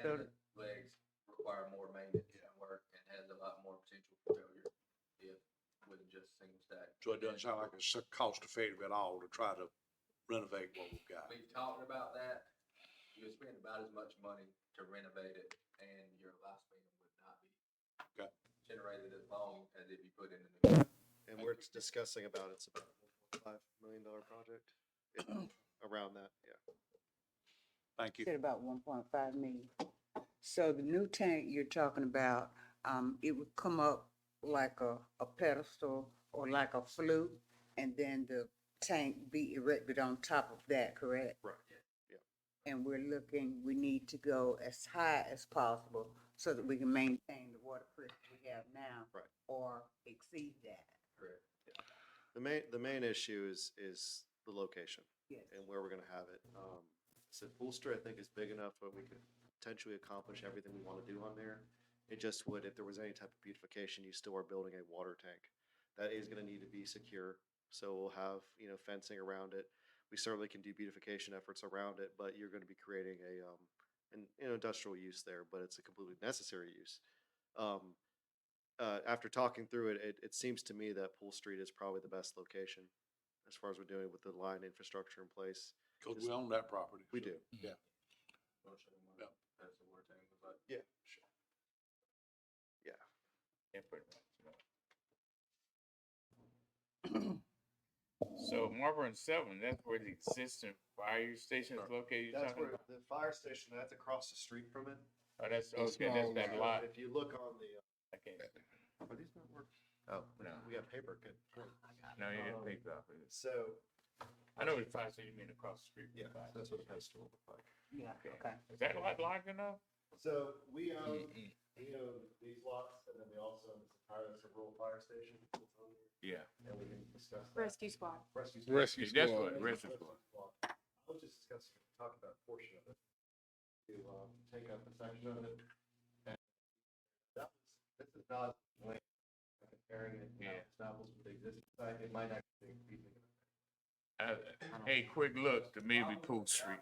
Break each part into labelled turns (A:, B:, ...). A: and the legs require more maintenance and work and has a lot more potential for failure if with just single stack.
B: So it doesn't sound like it's so cost effective at all to try to renovate what we've got.
A: We've talked about that. You spend about as much money to renovate it and your lifespan would not be
B: Okay.
A: generated as long as if you put in a new.
C: And we're discussing about, it's about a five million dollar project, if- around that, yeah.
B: Thank you.
D: Said about one point five million. So the new tank you're talking about, um, it would come up like a, a pedestal or like a flute, and then the tank be erected on top of that, correct?
C: Right, yeah.
D: And we're looking, we need to go as high as possible so that we can maintain the water pressure we have now.
C: Right.
D: Or exceed that,
A: Correct.
C: The main, the main issue is, is the location
D: yes.
C: and where we're gonna have it. Um, so Poolster, I think, is big enough where we could potentially accomplish everything we wanna do on there. It just would, if there was any type of beautification, you still are building a water tank. That is gonna need to be secure, so we'll have, you know, fencing around it. We certainly can do beautification efforts around it, but you're gonna be creating a, um, an, you know, industrial use there, but it's a completely necessary use. Um, uh, after talking through it, it, it seems to me that Pool Street is probably the best location as far as we're doing with the line infrastructure in place.
B: Because we own that property.
C: We
B: so-
C: do.
B: Yeah.
A: Wanna show them what-
B: Yep.
A: That's the word thing, but.
C: Yeah, sure. Yeah.
E: So Marlboro and Seven, that's where the existing fire station is located. you're
C: That's
E: talking
C: where the fire station, that's across the street from it.
E: about? Oh, that's, okay, that's that lot.
C: If you look on the. uh,
E: I can't,
C: Are these not working? Oh, no, we got paper, good.
E: no, you didn't
C: Um,
E: pick it up. It's-
C: So,
E: I know it's fire, so you mean across the street. from
C: yeah,
E: fire.
C: that's what it has to look like.
D: Yeah,
E: Okay.
D: okay.
E: Is that lot large enough?
C: So we own, we own these lots and then we also own this entire, that's a rural fire station. that's on there,
E: Yeah.
C: And we didn't discuss that.
F: Rescue squad.
C: Rescue. station.
E: Rescue That's
C: Yeah,
E: what,
C: it's
E: rescue
C: a
E: squad.
C: block. I was just discussing, talking about a portion of it. To, um, take up a section of it. and That was, this is not like comparing it, you know,
E: Yeah.
C: apples with the existing site, it might actually be.
E: Uh, Hey, quick look, to me, we Pool Street.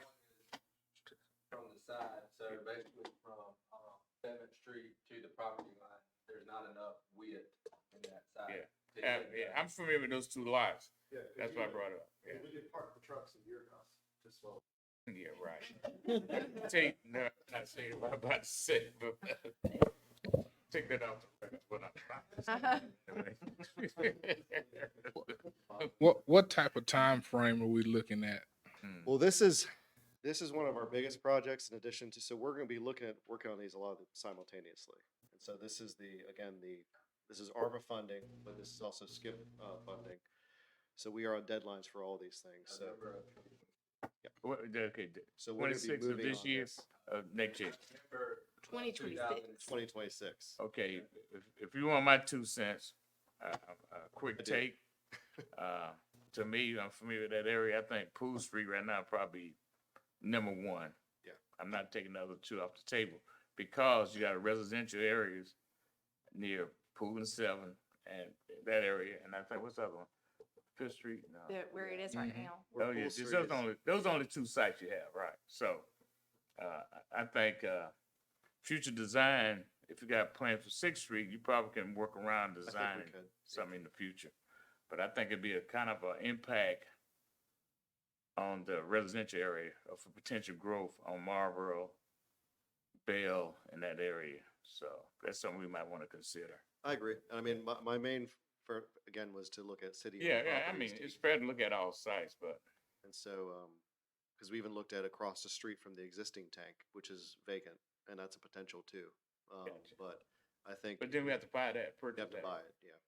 A: From the side, so basically from, um, Seventh Street to the property line, there's not enough width in that
E: Yeah.
A: side. to
E: Uh,
A: get
E: yeah,
A: that.
E: I'm familiar with those two lots.
C: Yeah.
E: That's why I brought it up. Yeah.
C: We could park the trucks in your house, just well.
E: Yeah, right. Take, no, not say what I'm about to say, but take that off the record, what I'm.
G: What what type of time frame are we looking at?
C: Well, this is, this is one of our biggest projects in addition to, so we're gonna be looking at, working on these a lot of simultaneously. And so this is the, again, the, this is ARPA funding, but this is also skip, uh, funding. So we are on deadlines for all these things, so,
A: November of
E: What, okay, d-
C: so we're gonna be
E: 26 of
C: moving
E: this
C: on
E: year?
C: this.
E: uh, next year.
A: November
F: Twenty twenty-six.
C: Twenty twenty-six.
E: Okay, if, if you want my two cents, uh, a
C: I
E: quick
C: do.
E: take. Uh, to me, I'm familiar with that area. I think Pool Street right now probably number one.
C: Yeah.
E: I'm not taking the other two off the table because you got residential areas near Pool and Seven and that area. And I think, what's the other one? Fifth Street? No.
F: That where it is right
G: Mhm.
F: now.
C: Where
E: Oh, yeah,
C: Pool
E: just
C: Street
E: those
C: is-
E: only, those only two sites you have, right, so, uh, I, I think, uh, future design, if you got plans for Sixth Street, you probably can work around
C: I think we
E: designing
C: could.
E: something in the future. But I think it'd be a kind of an impact on the residential area of for potential growth on Marlboro, Bell, and that area, so that's something we might wanna consider.
C: I agree. I mean, my, my main, f- for, again, was to look at city.
E: Yeah, yeah, I mean, it's fair to look at all sites, but,
C: And so, um, because we even looked at across the street from the existing tank, which is vacant, and that's a potential too. Um,
E: Gotcha.
C: but I think.
E: but then we have to buy that,
C: we
E: purchase
C: have to
E: that.
C: buy it, yeah.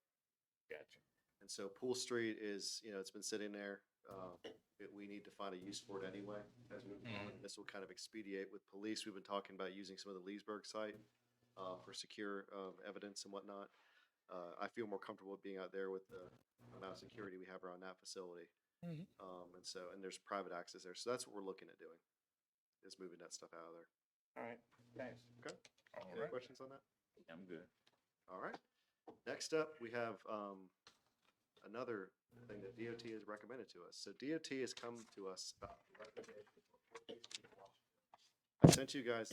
E: Gotcha.
C: And so Pool Street is, you know, it's been sitting there. Uh, it- we need to find a use for it anyway. As we, this will kind of expedite with police. We've been talking about using some of the Leesburg site uh, for secure um, evidence and whatnot. Uh, I feel more comfortable being out there with the amount of security we have around that facility.
G: Mhm.
C: Um, and so, and there's private access there. So that's what we're looking at doing, is moving that stuff out of there.
E: All right, thanks.
C: Okay.
E: All
C: Any
E: right,
C: questions on that?
E: I'm good.
C: All right. Next up, we have um, another thing that DOT has recommended to us. So DOT has come to us. about the recommendation for Fort Dix Beach Wash. I sent you guys